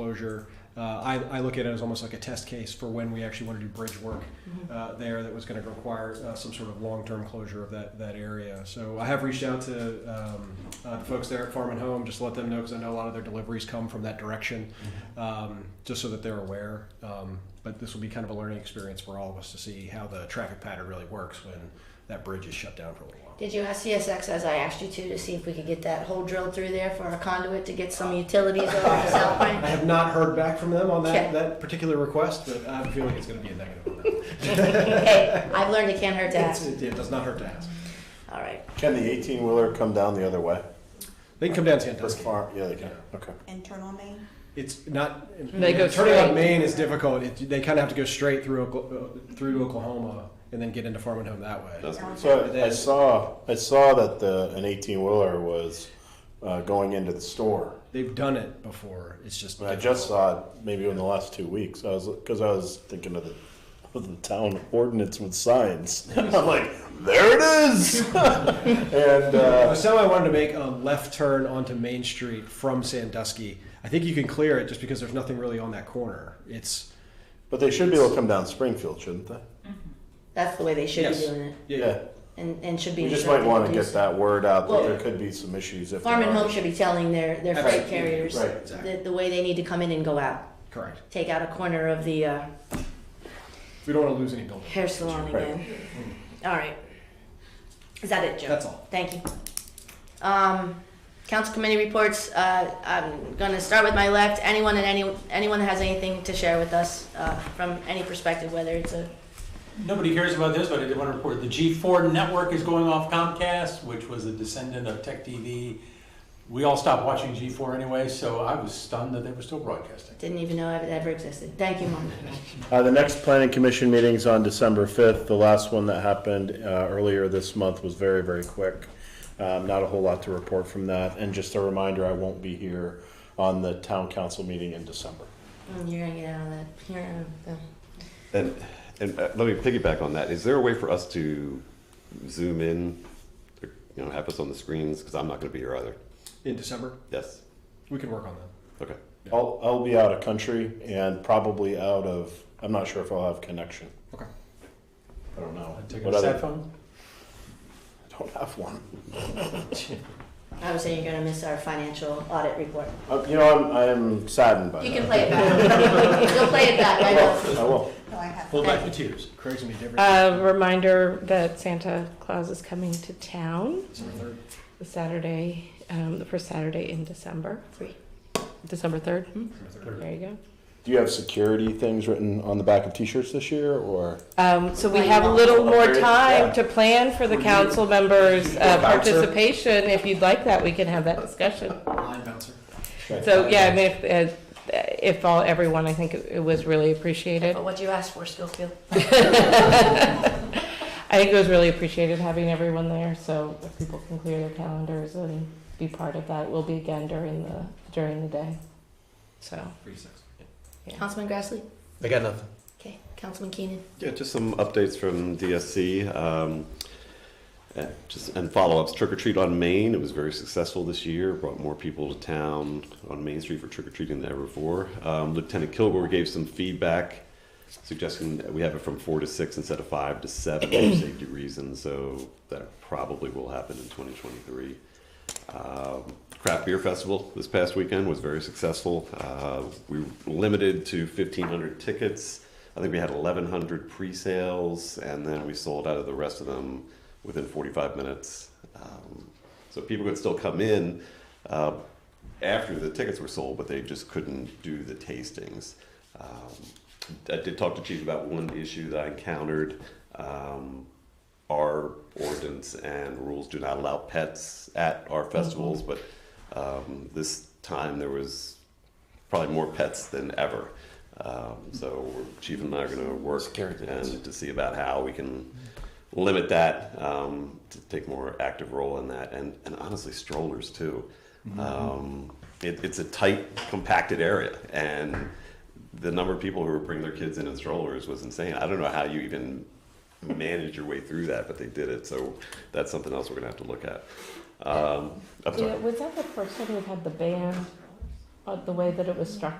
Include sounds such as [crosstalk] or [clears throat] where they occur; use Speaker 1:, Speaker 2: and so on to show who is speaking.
Speaker 1: closure. Uh, I, I look at it as almost like a test case for when we actually want to do bridge work uh, there that was going to require uh, some sort of long-term closure of that, that area. So I have reached out to um, uh, the folks there at Farm and Home, just to let them know, because I know a lot of their deliveries come from that direction, um, just so that they're aware. Um, But this will be kind of a learning experience for all of us to see how the traffic pattern really works when that bridge is shut down for a little while.
Speaker 2: Did you ask CSX as I asked you to to see if we could get that hole drilled through there for a conduit to get some utilities over to South
Speaker 1: I
Speaker 2: Pine?
Speaker 1: have not heard back from them on that,
Speaker 2: Okay.
Speaker 1: that particular request, but I have a feeling it's going to be a negative on that.
Speaker 2: Hey, I've learned it can't hurt to
Speaker 1: It's-
Speaker 2: ask.
Speaker 1: It it does not hurt to ask.
Speaker 2: All right.
Speaker 3: Can the eighteen wheeler come down the other way?
Speaker 1: They can come down Sandusky.
Speaker 3: This far? Yeah, they can.
Speaker 1: Yeah.
Speaker 3: Okay.
Speaker 4: internal main?
Speaker 1: It's not.
Speaker 5: They go
Speaker 1: turning on
Speaker 5: straight.
Speaker 1: Maine is difficult. It, they kind of have to go straight through Okla- uh, through to Oklahoma and then get into Farming Home that way.
Speaker 3: So I- I saw, I saw that the, an eighteen wheeler was, uh, going into the store.
Speaker 1: They've done it before. It's just.
Speaker 3: And I just saw it maybe in the last two weeks. I was, cause I was thinking of the, of the town ordinance with signs. [laughs] I'm like, there it is. [laughs] And, uh,
Speaker 1: So I wanted to make a left turn onto Main Street from Sandusky. I think you can clear it just because there's nothing really on that corner. It's
Speaker 3: but they should be able to come down Springfield, shouldn't they?
Speaker 2: That's the way they should be
Speaker 1: Yes.
Speaker 2: doing it
Speaker 3: Yeah.
Speaker 2: and, and should be.
Speaker 3: We just might wanna
Speaker 2: instructed
Speaker 3: get that word out that
Speaker 2: Well-
Speaker 3: there could be some issues if.
Speaker 2: do so. Farm
Speaker 3: there
Speaker 2: and
Speaker 3: are.
Speaker 2: Home should be telling their, their freight
Speaker 1: Absolutely.
Speaker 2: carriers
Speaker 3: Right.
Speaker 1: exactly
Speaker 2: the, the way they need to come in and go out.
Speaker 1: correct.
Speaker 2: Take out a corner of the uh,
Speaker 1: We don't want to lose any buildings.
Speaker 2: hair salon
Speaker 3: Right.
Speaker 2: again. All right. Is that it, Joe?
Speaker 1: That's all.
Speaker 2: Thank you. Um, council committee reports, uh, I'm gonna start with my left. Anyone and any, anyone that has anything to share with us, uh, from any perspective, whether it's a,
Speaker 6: Nobody cares about this, but I did want to report, the G4 network is going off Comcast, which was a descendant of Tech TV. We all stopped watching G4 anyway, so I was stunned that they were still broadcasting.
Speaker 2: didn't even know it ever existed. Thank you, Mom.
Speaker 3: Uh, the next planning commission meeting's on December fifth. The last one that happened, uh, earlier this month was very, very quick. Um, not a whole lot to report from that. And just a reminder, I won't be here on the town council meeting in December.
Speaker 2: Mm, You're gonna get out of that, you're, uh, the-
Speaker 7: And, and uh, let me piggyback on that. Is there a way for us to zoom in, or, you know, have us on the screens? Because I'm not going to be here either.
Speaker 1: In December,
Speaker 7: Yes.
Speaker 1: we can work on that.
Speaker 7: Okay.
Speaker 3: I'll, I'll be out of country and probably out of, I'm not sure if I'll have connection.
Speaker 1: Okay.
Speaker 3: I don't know.
Speaker 6: I took a
Speaker 3: What other-
Speaker 6: cell phone.
Speaker 3: I Don't have one.
Speaker 2: I would say you're gonna miss our financial audit report.
Speaker 3: Uh, you know, I'm, I'm saddened by
Speaker 2: You
Speaker 3: that.
Speaker 2: can play it back. [laughs] You'll play it back, I know.
Speaker 3: I will.
Speaker 4: No, I have.
Speaker 6: Hold back the tears.
Speaker 1: Craig's gonna be different.
Speaker 5: A Uh, reminder that Santa Claus is coming to town
Speaker 1: December third.
Speaker 5: the Saturday, um, the first Saturday in December.
Speaker 2: Three.
Speaker 5: December 3rd. Hmm,
Speaker 1: December third.
Speaker 5: There you go.
Speaker 3: Do you have security things written on the back of t-shirts this year or?
Speaker 5: Um, so we
Speaker 2: Why
Speaker 5: have a
Speaker 2: not?
Speaker 5: little more
Speaker 3: Okay,
Speaker 5: time
Speaker 3: yeah.
Speaker 5: to plan for the council members' uh,
Speaker 3: Bouncer.
Speaker 5: participation. If you'd like that, we can have that discussion.
Speaker 1: Line bouncer.
Speaker 5: So, yeah, I mean, if, uh, if all, everyone, I think it it was really appreciated.
Speaker 2: But what you asked for, Schofield?
Speaker 5: [laughs] I think it was really appreciated having everyone there, so if people can clear their calendars and be part of that, we'll be again during the, during the day. So,
Speaker 1: Three six.
Speaker 2: Councilman Grassley?
Speaker 6: I got nothing.
Speaker 2: Okay, Councilman Keenan?
Speaker 7: Yeah, just some updates from DSC. Um, uh, just and follow-ups. Trick or treat on Main. It was very successful this year. Brought more people to town on Main Street for trick or treating than ever before. Um, Lieutenant Kilgore gave some feedback, suggesting that we have it from four to six instead of five to seven for [clears throat] safety reasons. So that probably will happen in 2023. Um, Craft Beer Festival this past weekend was very successful. Uh, we were limited to 1,500 tickets. I think we had 1,100 pre sales, and then we sold out of the rest of them within 45 minutes. Um, so people could still come in uh, after the tickets were sold, but they just couldn't do the tastings. Um, I did talk to Chief about one issue that I encountered. Um, our ordinance and rules do not allow pets at our festivals, but um, this time there was probably more pets than ever. Um, so we're- Chief and I are going to work and to see about how we can limit that um, to take more active role in that, and, and honestly strollers too. Um, it, it's a tight, compacted area, and the number of people who were bringing their kids in in strollers was insane. I don't know how you even manage your way through that, but they did it. So that's something else we're gonna have to look at. Um, I'm sorry.
Speaker 5: yeah, was that the person who had the band, uh, the way that it was structured?